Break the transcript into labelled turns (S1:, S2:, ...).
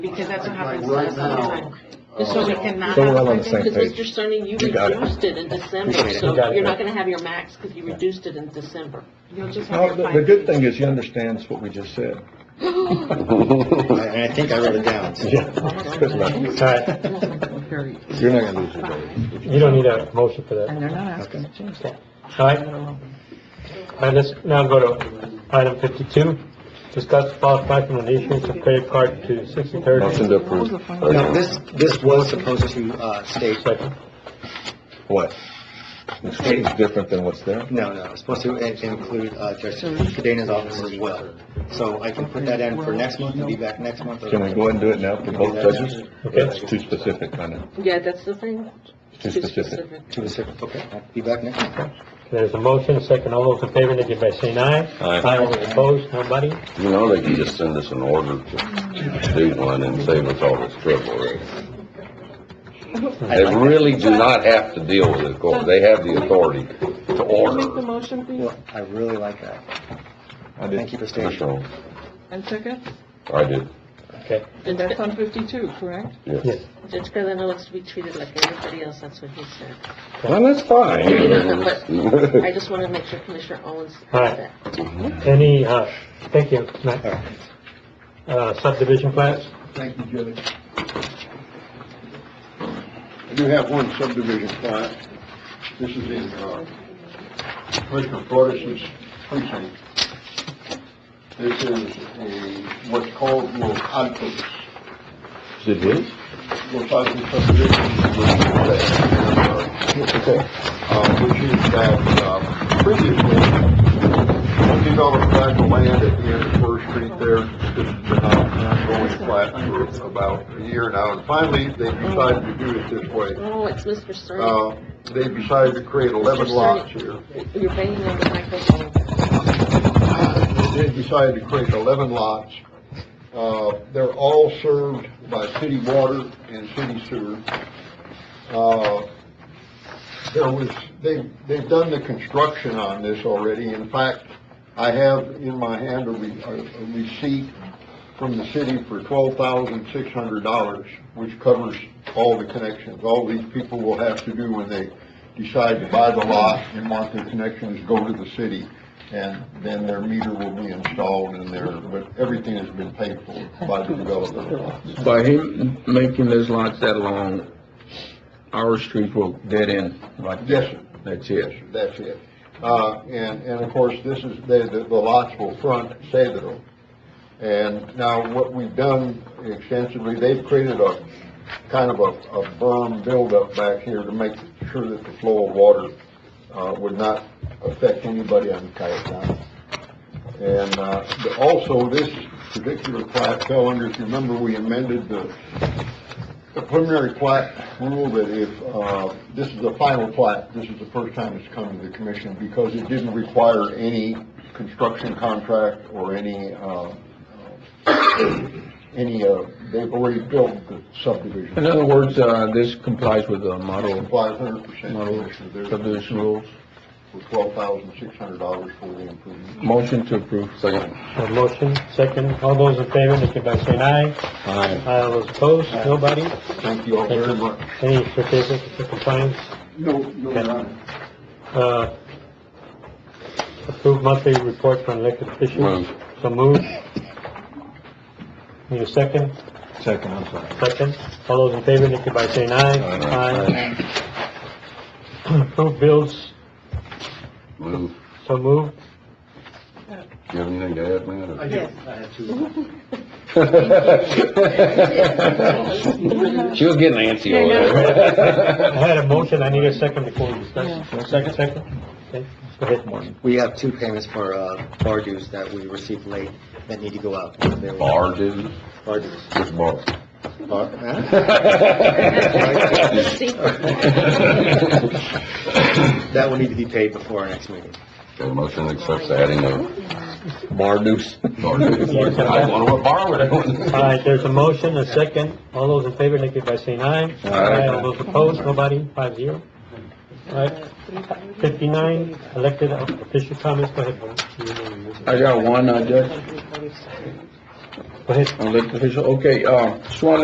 S1: because that's what happens to
S2: Right
S1: us all the
S2: now,
S1: time.
S2: uh,
S1: So we cannot.
S3: So we're
S1: have-
S3: all on the same
S4: Because
S3: page.
S4: Mr. Sonny, you
S3: You got it.
S4: reduced it in December,
S3: Appreciate it. You
S4: so
S3: got it.
S4: you're not gonna have your max because you reduced it in December.
S1: You'll just have
S3: No,
S1: your
S3: the,
S1: five
S3: the good
S1: minutes.
S3: thing is you understands what we just said.
S2: I I think I wrote it down.
S3: Yeah. Good luck.
S5: All right,
S3: You're not gonna lose your day.
S5: you don't need a motion for that.
S6: And they're not asking to change that.
S5: All right, all right, let's now go to item fifty-two. Discuss possible action on the issuance of credit card to
S3: Motion
S5: sixty-third.
S3: to
S6: What was the
S3: approve.
S6: final-
S2: No, this, this was supposed to, uh, state,
S5: Second.
S3: What? It's different than what's there?
S2: no, no, it's supposed to in- include, uh, Judge Cadena's office as well. So I can put that in for next month, and be back next month.
S3: Can we go ahead and do it now for both judges?
S5: Okay.
S3: It's too specific, I know.
S4: Yeah, that's the thing.
S3: Too specific.
S2: To the sixth, okay, I'll be back next month.
S5: There's a motion, second, all those in favor, indicate by saying aye.
S7: Aye.
S5: all those opposed, nobody.
S7: You know, they can just send us an order to do one and save us all this trouble, right? They really do not have to deal with it, court. they have the authority to
S6: Make the
S7: order.
S6: motion, please,
S2: Well, I really like that.
S3: I did.
S2: Thank you for staying.
S7: Commissioner, Holmes,
S6: and second,
S7: I did,
S5: Okay,
S6: and that's on fifty-two, correct?
S7: yes.
S5: yes,
S4: Judge Carlino likes to be treated like everybody else, that's what he said.
S7: Well, that's
S4: But I
S7: fine.
S4: just wanna make sure Commissioner Owens
S5: All
S4: has
S5: right.
S4: that.
S5: any, uh, thank you. Matt.
S2: All right.
S5: Uh, subdivision plans?
S2: Thank you, Judge.
S8: I do have one subdivision plat. This is in, uh, Commissioner Flores' precinct. This is a, what's called Los Altos,
S3: Did we?
S8: Los Altos subdivision. Uh, which is that, uh, previously, I did all the flat of land at the end of First Street there. This has been ongoing flat for about a year now, and finally, they decided to do it this way.
S4: Oh, it's Mr. Cerny.
S2: Oh,
S8: Uh, they decided to create 11 lots here.
S4: You're banging on the microphone.
S8: They Uh, decided to create 11 lots. Uh, They're all served by city water and city sewer. Uh, There was, they, they've done the construction on this already. In fact, I have in my hand a re- a- a receipt from the city for $12,600, which covers all the connections. All these people will have to do when they decide to buy the lot and want their connections, go to the city, and then their meter will be installed in there, but everything has been paid for by the developer.
S9: By him making those lots that long, our street will dead end like that.
S8: Yes, sir.
S9: That's
S8: Yes,
S9: it.
S8: sir, that's it. Uh, and, and of course, this is, the, the the lots will front Cedro. And now what we've done extensively, they've created a, kind of a, a berm buildup back here to make sure that the flow of water, uh, would not affect anybody on Coyote County. And, uh, the- also, this particular plat fell under, if you remember, we amended the, the preliminary plat rule that if, uh, this is the final plat, this is the first time it's come to the commission because it didn't require any construction contract or any, uh, any, uh, they've already built the subdivision.
S9: In other words, uh, this complies with the model,
S8: Complies hundred percent,
S9: model
S8: Commissioner. There's-
S9: subdivision rules.
S8: for twelve thousand six hundred dollars for the improvement.
S9: Motion to approve, second.
S5: A motion, second, all those in favor, indicate by saying aye.
S9: Aye.
S5: Aye, all those opposed, nobody.
S8: Thank you all very much.
S5: Any certificate of compliance?
S8: No, no,
S5: Your Uh, Approve monthly report from elected officials.
S9: Move.
S5: So moved. Need a second?
S3: Second, I'm sorry.
S5: Second. All those in favor, indicate by saying aye.
S7: Aye.
S5: Aye. Approve bills.
S7: Lou,
S5: So moved.
S7: you have anything to add, man? or-
S1: Yes.
S7: She was getting antsy over
S5: I
S7: there.
S5: had a motion, I need a second before we discuss. Second, second? Okay, go ahead, Martin.
S2: We have two payments for, uh, bar dues that we received late that need to go out. They're-
S7: Bar dues,
S2: Bar dues.
S7: just bar.
S2: Bar, huh?
S7: Got
S2: That will need to be paid before our next meeting.
S7: a motion that accepts adding of
S3: Marduk's.
S7: bar dues. I want to borrow it.
S5: All right, there's a motion, a second. All those in favor, indicate by saying aye. Aye. All those opposed, nobody, five zero. All right, fifty-nine, elected official comments, go ahead. Vern.
S9: I got one, uh, Judge.
S5: Go ahead.
S9: Elected official, okay, uh, just wanna